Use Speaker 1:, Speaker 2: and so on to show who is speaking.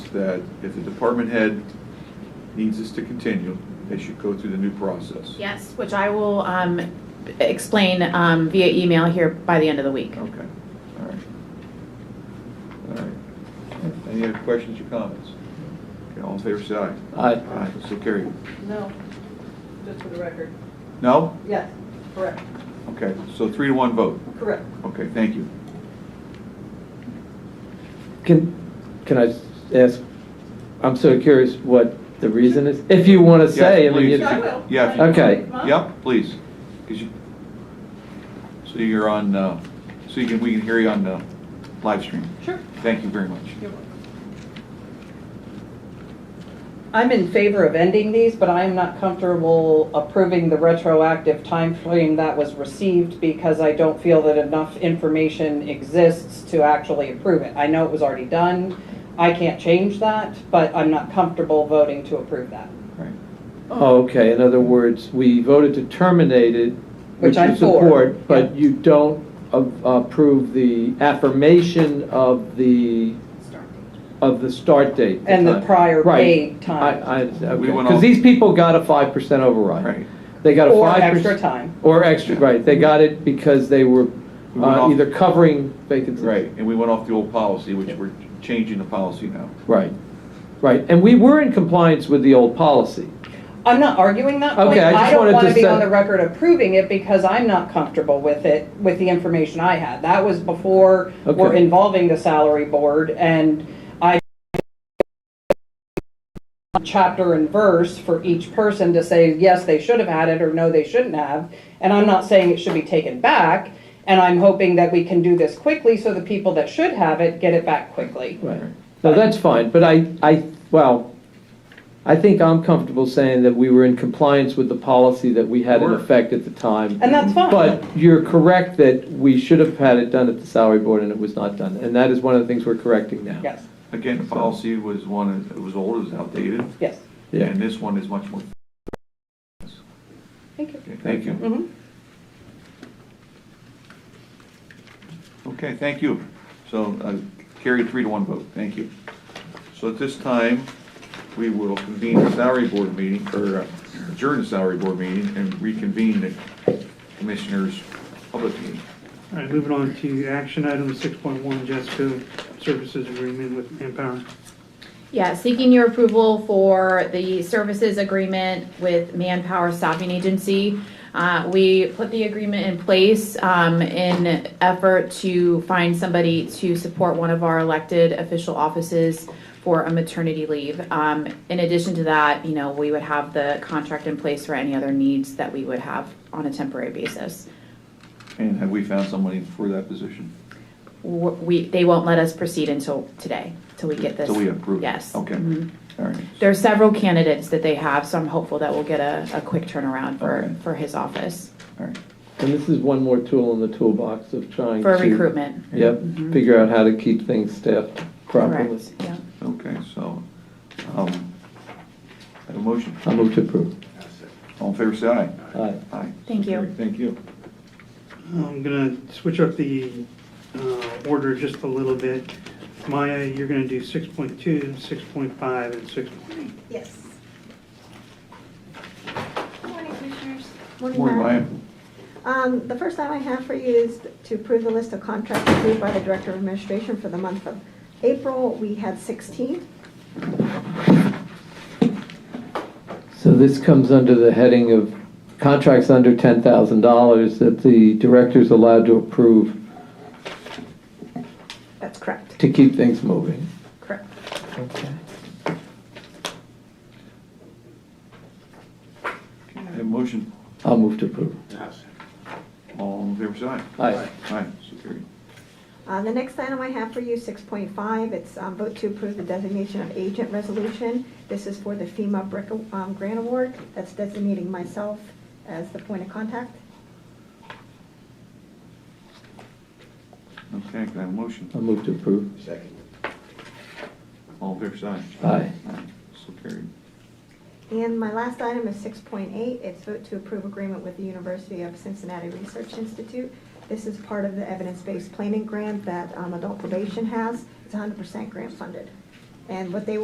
Speaker 1: that if the department head needs us to continue, they should go through the new process.
Speaker 2: Yes, which I will um, explain um, via email here by the end of the week.
Speaker 1: Okay, all right. All right. Any other questions or comments? Okay, all in favor, say aye.
Speaker 3: Aye.
Speaker 1: Aye, so carried.
Speaker 4: No, just for the record.
Speaker 1: No?
Speaker 4: Yes, correct,
Speaker 1: Okay, so three to one vote.
Speaker 4: correct.
Speaker 1: Okay, thank you.
Speaker 3: Can, can I s- ask, I'm so curious what the reason is, if you want to
Speaker 1: Yes,
Speaker 3: say. I mean,
Speaker 1: please.
Speaker 3: you-
Speaker 4: Yeah, I will.
Speaker 1: Yeah, if you-
Speaker 3: Okay.
Speaker 1: Yep, please. 'Cause you- So you're on, uh, so you can, we can hear you on the live stream.
Speaker 4: Sure.
Speaker 1: Thank you very much.
Speaker 4: You're welcome. I'm in favor of ending these, but I am not comfortable approving the retroactive time frame that was received because I don't feel that enough information exists to actually approve it. I know it was already done. I can't change that, but I'm not comfortable voting to approve that,
Speaker 1: All right.
Speaker 3: Oh, Okay, in other words, we voted to terminate it,
Speaker 4: Which
Speaker 3: which
Speaker 4: I'm
Speaker 3: you
Speaker 4: for,
Speaker 3: support, but
Speaker 4: yeah.
Speaker 3: you don't a- approve the affirmation of the, of the start date.
Speaker 4: And the
Speaker 3: time.
Speaker 4: prior
Speaker 3: Right.
Speaker 4: paid time.
Speaker 3: I, I,
Speaker 1: We went all-
Speaker 3: because these people got a five percent override.
Speaker 1: Right.
Speaker 3: They got a
Speaker 4: Or
Speaker 3: five percent.
Speaker 4: extra time.
Speaker 3: Or extra, right, they got it because they were
Speaker 1: We went
Speaker 3: uh,
Speaker 1: off-
Speaker 3: either covering vacancies.
Speaker 1: Right, and we went off the old policy, which we're changing the policy now.
Speaker 3: Right, right, and we were in compliance with the old policy.
Speaker 4: I'm not arguing that point.
Speaker 3: Okay, I just
Speaker 4: I don't
Speaker 3: wanted
Speaker 4: want to
Speaker 3: to
Speaker 4: be
Speaker 3: say-
Speaker 4: on the record approving it because I'm not comfortable with it, with the information I had. That was before we're
Speaker 3: Okay.
Speaker 4: involving the salary board, and I chapter and verse for each person to say, yes, they should have had it, or no, they shouldn't have. And I'm not saying it should be taken back, and I'm hoping that we can do this quickly so the people that should have it get it back quickly.
Speaker 3: Right. No, that's fine, but I, I, well, I think I'm comfortable saying that we were in compliance with the policy that we had in
Speaker 1: Sure.
Speaker 3: effect at the time.
Speaker 4: And that's fine.
Speaker 3: But you're correct that we should have had it done at the salary board and it was not done, and that is one of the things we're correcting now.
Speaker 4: Yes,
Speaker 1: Again, the policy was one, it was old, it was outdated,
Speaker 4: yes.
Speaker 3: Yeah.
Speaker 1: and this one is much more,
Speaker 4: Thank you.
Speaker 1: okay, thank you.
Speaker 4: Mhm.
Speaker 1: Okay, thank you. So uh, carried three to one vote, thank you. So at this time, we will convene the salary board meeting, or uh, adjourn the salary board meeting and reconvene the commissioners' public meeting.
Speaker 5: All right, moving on to action item six point one, Jesco Services Agreement with Manpower.
Speaker 2: Yeah, seeking your approval for the services agreement with Manpower Staffing Agency. Uh, We put the agreement in place um, in effort to find somebody to support one of our elected official offices for a maternity leave. Um, In addition to that, you know, we would have the contract in place for any other needs that we would have on a temporary basis.
Speaker 1: And have we found somebody for that position?
Speaker 2: W- We, they won't let us proceed until today, till we get this.
Speaker 1: So we approve?
Speaker 2: Yes.
Speaker 1: Okay,
Speaker 2: Mhm.
Speaker 4: Mm-hmm.
Speaker 1: all right.
Speaker 2: There are several candidates that they have, so I'm hopeful that we'll get a, a quick turnaround for,
Speaker 1: Okay.
Speaker 2: for his office,
Speaker 1: All right.
Speaker 3: And this is one more tool in the toolbox of trying
Speaker 2: for
Speaker 3: to.
Speaker 2: recruitment.
Speaker 3: Yep,
Speaker 4: Mm-hmm.
Speaker 3: figure out how to keep things staffed properly.
Speaker 2: Correct, yeah.
Speaker 1: Okay, so, um, have a motion.
Speaker 3: I move to approve.
Speaker 1: All in favor, say aye.
Speaker 3: Aye.
Speaker 1: Aye.
Speaker 2: Thank you.
Speaker 1: Thank you.
Speaker 5: I'm gonna switch up the uh, order just a little bit. Maya, you're gonna do 6.2, 6.5, and six point eight.
Speaker 6: Yes. Good morning, Commissioners.
Speaker 1: Morning, Maya.
Speaker 6: Um, The first item I have for you is to approve the list of contracts approved by the Director of Administration for the month of April. We had 16.
Speaker 3: So this comes under the heading of contracts under $10,000 that the director's allowed to approve
Speaker 6: That's correct.
Speaker 3: to keep things moving.
Speaker 6: Correct.
Speaker 1: Have a motion.
Speaker 3: I'll move to approve.
Speaker 1: All in favor, say aye.
Speaker 3: Aye.
Speaker 1: Aye, so carried.
Speaker 6: Uh, The next item I have for you, 6.5, it's um, vote to approve the designation of agent resolution. This is for the FEMA brick, um, grant award. That's designating myself as the point of contact.
Speaker 1: Okay, can I have a motion?
Speaker 3: I'll move to approve.
Speaker 1: All in favor, say aye.
Speaker 3: Aye.
Speaker 1: Aye, so carried.
Speaker 6: And my last item is six point eight, it's vote to approve agreement with the University of Cincinnati Research Institute. This is part of the evidence-based planning grant that um, adult probation has, it's hundred percent grant funded. And what they